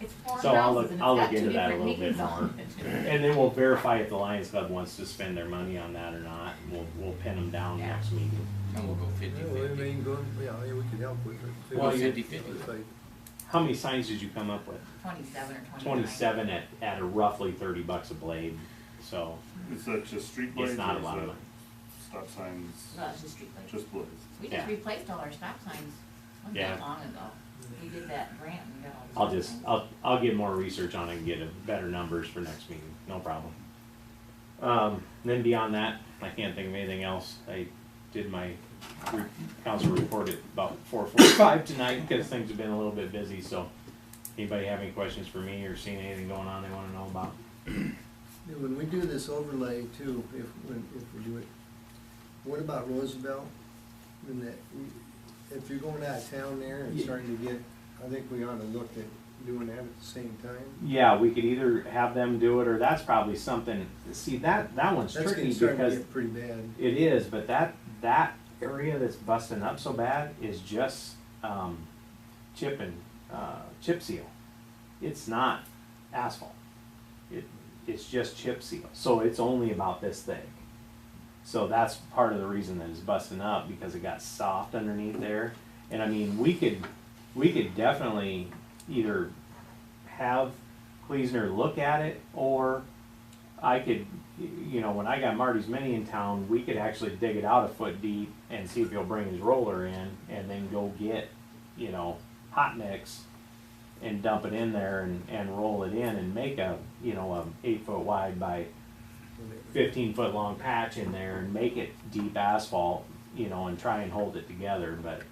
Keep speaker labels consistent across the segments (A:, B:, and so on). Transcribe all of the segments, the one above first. A: It's four
B: So I'll
A: houses
B: look-
A: and it's
B: I'll
A: got
B: look
A: two
B: into that a
A: different
B: little bit
A: names on it.
B: And then we'll verify if the Lions Club wants to spend their money on that or not, and we'll, we'll pin them down
A: Yeah.
B: next meeting.
C: And we'll go
D: Yeah, well, I
C: fifty-fifty.
D: mean, go- yeah, yeah, we can help with it.
B: Well, you-
D: It's like-
B: How many signs did you come up with?
A: Twenty-seven or twenty-nine.
B: Twenty-seven at, at a roughly thirty bucks a blade, so
E: Is that just street blades?
B: it's not a
E: or is
B: lot of
E: that
B: money.
E: Stop signs,
A: No, it's just street lights.
E: just blades.
A: We just
B: yeah.
A: replaced all our stop signs, not
B: Yeah.
A: that long ago. We did that grant and got all the. stop
B: I'll just,
A: signs.
B: I'll, I'll get more research on it and get a better numbers for next meeting, no problem. Um, then beyond that, I can't think of anything else. I did my re- council report at about four forty-five tonight, because things have been a little bit busy, so. Anybody have any questions for me or seen anything going on they wanna know about?
D: Yeah, When we do this overlay too, if, when, if we do it, what about Roosevelt? When that, if you're going out of town there and
B: Yeah.
D: starting to get, I think we ought to look at doing that at the same time.
B: Yeah, we could either have them do it, or that's probably something, see, that, that one's
D: That's
B: tricky
D: getting starting to
B: because
D: get pretty bad.
B: it is, but that, that area that's busting up so bad is just, um, chip and, uh, chip seal. It's not asphalt. It, it's just chip seal, so it's only about this thick. So that's part of the reason that it's busting up, because it got soft underneath there. And I mean, we could, we could definitely either have Kleesner look at it, or I could, you know, when I got Marty's Mini in town, we could actually dig it out a foot deep and see if he'll bring his roller in, and then go get, you know, hot mix and dump it in there and, and roll it in and make a, you know, a eight foot wide by fifteen foot long patch in there and make it deep asphalt, you know, and try and hold it together, but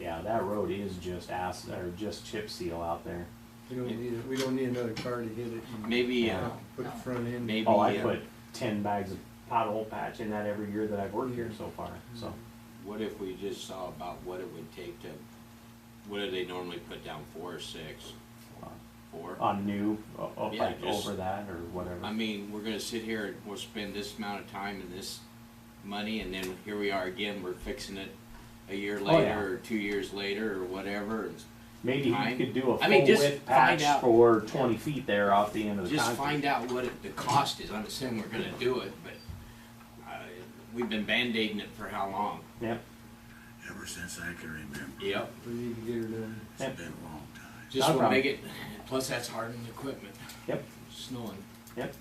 B: yeah, that road is just ass, or just chip seal out there.
D: We don't need, it- we don't need another car to hit it and
C: Maybe, uh,
D: uh, put the front end.
C: maybe.
B: Oh, I
C: uh,
B: put ten bags of pothole patch in that every year that I've worked here so far, so.
C: What if we just saw about what it would take to, what do they normally put down, four or six? Four?
B: On new, o- o-
C: Yeah,
B: like
C: just-
B: over that or
C: I
B: whatever.
C: mean, we're gonna sit here and we'll spend this amount of time and this money, and then here we are again, we're fixing it a year
B: Oh, yeah.
C: later, or two years later, or whatever, and
B: Maybe you
C: Fine.
B: could do a full
C: I mean, just
B: width
C: find
B: patch
C: out.
B: for twenty feet there off the end of the
C: Just
B: concrete.
C: find out what it- the cost is, I'm assuming we're gonna do it, but, uh, we've been Band-Aiding it for how long?
B: Yep,
F: Ever since I can remember,
C: Yep.
D: We need to get her done.
F: it's been a long time.
C: Just
B: Not a
C: wanna make it, plus that's hardened equipment.
B: Yep.
C: Snowing.
B: yep,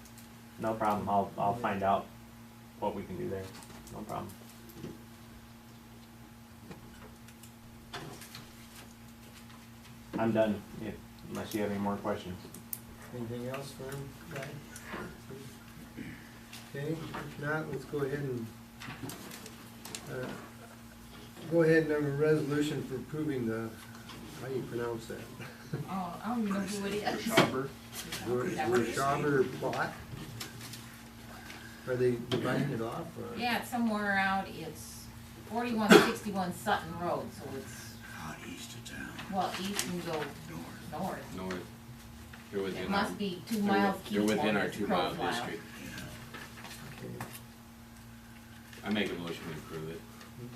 B: no problem, I'll, I'll find out what we can do there, no problem. I'm done, if, unless you have any more questions.
D: Anything else for him, guy? Okay, if not, let's go ahead and, uh, go ahead and have a resolution for approving the, how do you pronounce that?
A: Oh, I don't even know who it is.
E: Chopper,
A: Is that what it is?
D: Schaber plot? Are they dividing it off or?
A: Yeah, it's somewhere out, it's forty-one sixty-one Sutton Road, so it's,
F: Out east of town,
A: well, east and go
F: north.
A: north.
C: North. They're
A: It
C: within our.
A: must be two
C: they're
A: miles.
C: with-
A: east
C: They're within
A: of
C: our
A: this
C: two mile
A: profile.
C: district.
F: Yeah,
D: Okay,
C: I make a motion to approve it.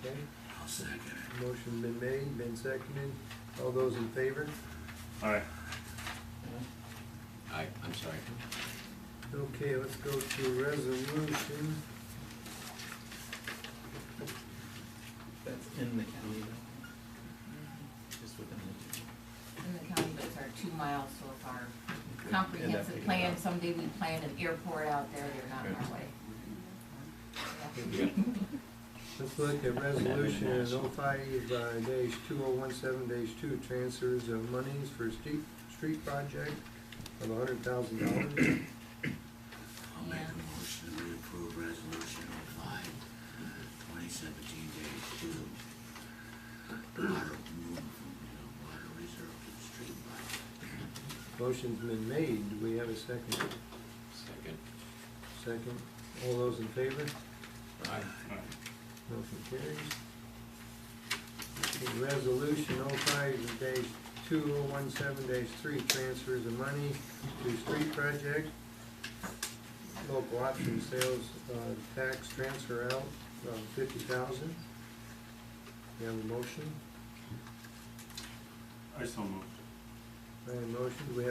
D: Okay,
F: I'll second it.
D: motion been made, been seconded, all those in favor?
E: alright.
C: I, I'm sorry.
D: Okay, let's go to resolution.
G: That's in the county, though.
A: Mm-hmm.
G: Just within
A: In the county, but it's our two miles, so if our
G: the.
A: comprehensive plan, someday we plan an airport out there, they're not in our way.
D: Let's look at resolution oh five dash two oh one seven dash two, transfers of monies for street, street project of hundred thousand dollars.
F: I'll make
A: Yeah.
F: a motion to approve resolution oh five, twenty seventeen dash two. Water, move from the water reserve to the street line.
D: Motion's been made, do we have a second?
C: Second.
D: Second, all those in favor?
C: Aye.
D: Motion carries. Okay, Resolution oh five dash two oh one seven dash three, transfers of money to street project. Local option sales, uh, tax transfer out, uh, fifty thousand. We have a motion,
E: I so moved.
D: I have a motion, Do we have